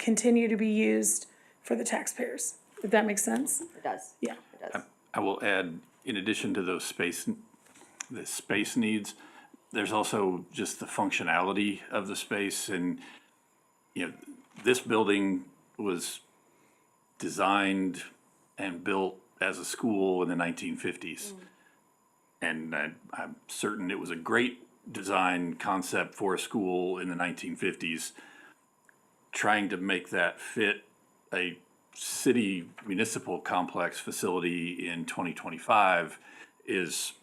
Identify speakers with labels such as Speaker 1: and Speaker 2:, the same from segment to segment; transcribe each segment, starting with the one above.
Speaker 1: continue to be used for the taxpayers. If that makes sense?
Speaker 2: It does.
Speaker 1: Yeah.
Speaker 2: It does.
Speaker 3: I will add, in addition to those space, the space needs, there's also just the functionality of the space and, you know, this building was designed and built as a school in the nineteen fifties. And I, I'm certain it was a great design concept for a school in the nineteen fifties. Trying to make that fit a city municipal complex facility in twenty twenty-five is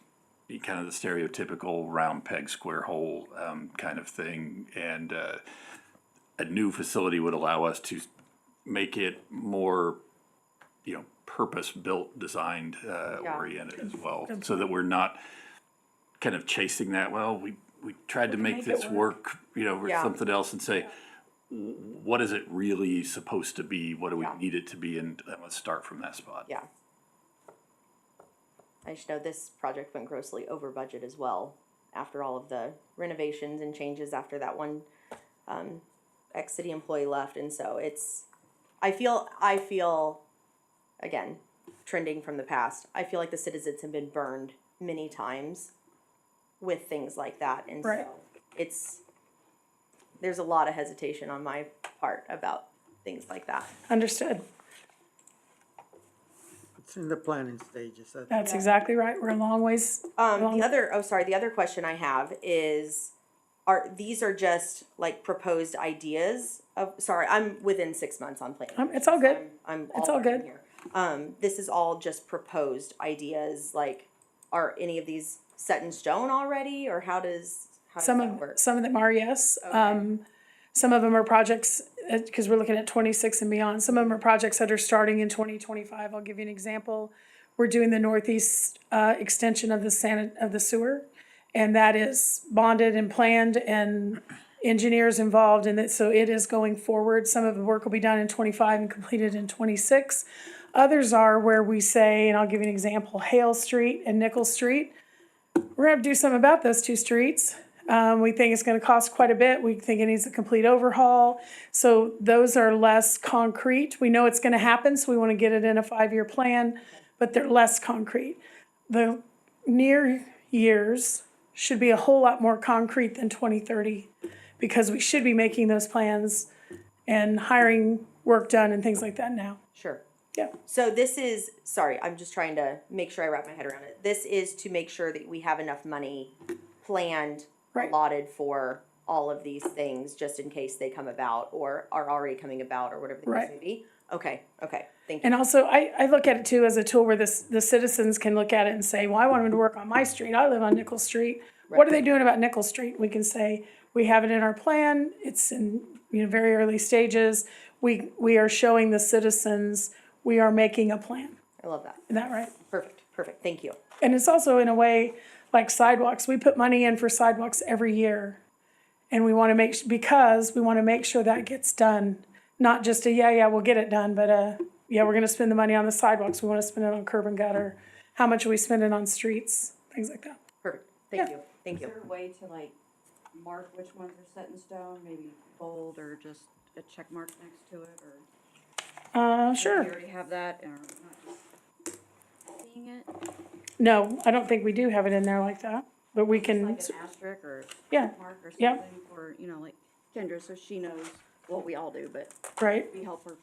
Speaker 3: kind of the stereotypical round peg square hole um, kind of thing, and uh, a new facility would allow us to make it more, you know, purpose-built, designed, uh,
Speaker 2: Yeah.
Speaker 3: oriented as well, so that we're not kind of chasing that. Well, we we tried to make
Speaker 1: make it
Speaker 3: this work, you know, or
Speaker 2: Yeah.
Speaker 3: something else, and say what is it really supposed to be? What do we
Speaker 2: Yeah.
Speaker 3: need it to be? And uh, let's start from that spot.
Speaker 2: Yeah. I just know this project went grossly over budget as well after all of the renovations and changes after that one um, ex city employee left. And so it's, I feel, I feel, again, trending from the past, I feel like the citizens have been burned many times with things like that. And
Speaker 1: Right.
Speaker 2: so it's, there's a lot of hesitation on my part about things like that.
Speaker 1: Understood.
Speaker 4: It's in the planning stages. I think.
Speaker 1: That's exactly right. We're a long ways.
Speaker 2: Um, the other, oh, sorry, the other question I have is, are, these are just like proposed ideas of, sorry, I'm within six months on planning.
Speaker 1: Um, it's all good.
Speaker 2: I'm- I'm.
Speaker 1: It's all
Speaker 2: learning
Speaker 1: good.
Speaker 2: here. Um, this is all just proposed ideas, like, are any of these set in stone already, or how does, how does
Speaker 1: Some
Speaker 2: that
Speaker 1: of,
Speaker 2: work?
Speaker 1: some of them are, yes. Um, some of them are projects, uh, cause we're looking at twenty-six and beyond. Some of them are projects that are starting in twenty twenty-five. I'll give you an example. We're doing the northeast, uh, extension of the san, of the sewer. And that is bonded and planned and engineers involved in it, so it is going forward. Some of the work will be done in twenty-five and completed in twenty-six. Others are where we say, and I'll give you an example, Hale Street and Nickel Street. We're gonna have to do something about those two streets. Um, we think it's gonna cost quite a bit. We think it needs a complete overhaul. So those are less concrete. We know it's gonna happen, so we wanna get it in a five-year plan, but they're less concrete. The near years should be a whole lot more concrete than twenty thirty, because we should be making those plans and hiring work done and things like that now.
Speaker 2: Sure.
Speaker 1: Yeah,
Speaker 2: So this is, sorry, I'm just trying to make sure I wrap my head around it. This is to make sure that we have enough money planned,
Speaker 1: Right.
Speaker 2: allotted for all of these things, just in case they come about or are already coming about or whatever the case
Speaker 1: Right.
Speaker 2: may be. Okay, okay, thank you.
Speaker 1: and also, I, I look at it too as a tool where this, the citizens can look at it and say, well, I want them to work on my street, I live on Nickel Street. What are they doing about Nickel Street? We can say, we have it in our plan, it's in, you know, very early stages. We, we are showing the citizens, we are making a plan,
Speaker 2: I love that.
Speaker 1: is that right?
Speaker 2: Perfect, perfect, thank you.
Speaker 1: And it's also in a way like sidewalks. We put money in for sidewalks every year. And we want to make, because we want to make sure that gets done. Not just a, yeah, yeah, we'll get it done, but uh yeah, we're going to spend the money on the sidewalks. We want to spend it on curb and gutter. How much are we spending on streets? Things like that.
Speaker 2: Perfect, thank
Speaker 1: Yeah.
Speaker 2: you, thank you.
Speaker 5: Is there a way to like mark which ones are set in stone, maybe bold or just a check mark next to it, or?
Speaker 1: Uh,
Speaker 5: Do you
Speaker 1: sure.
Speaker 5: already have that, or not just seeing it,
Speaker 1: No, I don't think we do have it in there like that, but we can,
Speaker 5: like an asterisk or
Speaker 1: yeah,
Speaker 5: mark or
Speaker 1: yeah.
Speaker 5: something, or, you know, like Kendra, so she knows what we all do, but
Speaker 1: right?
Speaker 5: we help her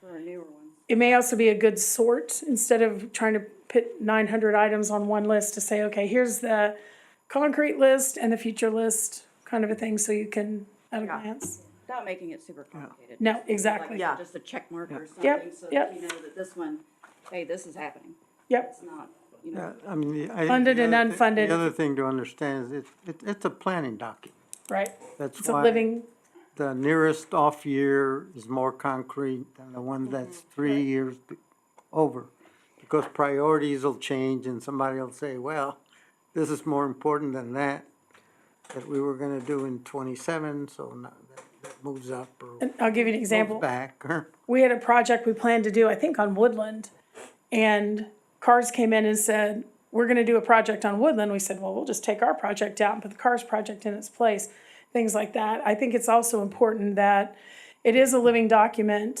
Speaker 5: for our newer ones.
Speaker 1: It may also be a good sort, instead of trying to put nine hundred items on one list to say, okay, here's the concrete list and the future list, kind of a thing, so you can at a
Speaker 5: Yeah.
Speaker 1: glance.
Speaker 5: Without making it super complicated.
Speaker 1: No,
Speaker 5: just like
Speaker 1: exactly.
Speaker 2: Yeah.
Speaker 5: Just a check mark or
Speaker 1: Yep,
Speaker 5: something, so
Speaker 1: yep.
Speaker 5: that you know that this one, hey, this is happening,
Speaker 1: Yep,
Speaker 5: it's not, you
Speaker 4: Yeah,
Speaker 5: know,
Speaker 4: I mean, the- I.
Speaker 1: Funded
Speaker 4: the
Speaker 1: and
Speaker 4: other thi-
Speaker 1: unfunded.
Speaker 4: The other thing to understand is it, it, it's a planning document.
Speaker 1: right.
Speaker 4: That's
Speaker 1: It's a
Speaker 4: why
Speaker 1: living,
Speaker 4: the nearest off year is more concrete than the one that's
Speaker 1: Mm-hmm.
Speaker 4: three years b- over. Because priorities will change and somebody will say, well, this is more important than that, that we were gonna do in twenty-seven, so now that, that moves up or moves
Speaker 1: I'll give you an example.
Speaker 4: back or.
Speaker 1: we had a project we planned to do, I think on Woodland. And Cars came in and said, we're gonna do a project on Woodland. We said, well, we'll just take our project out and put the Cars project in its place, things like that. I think it's also important that it is a living document.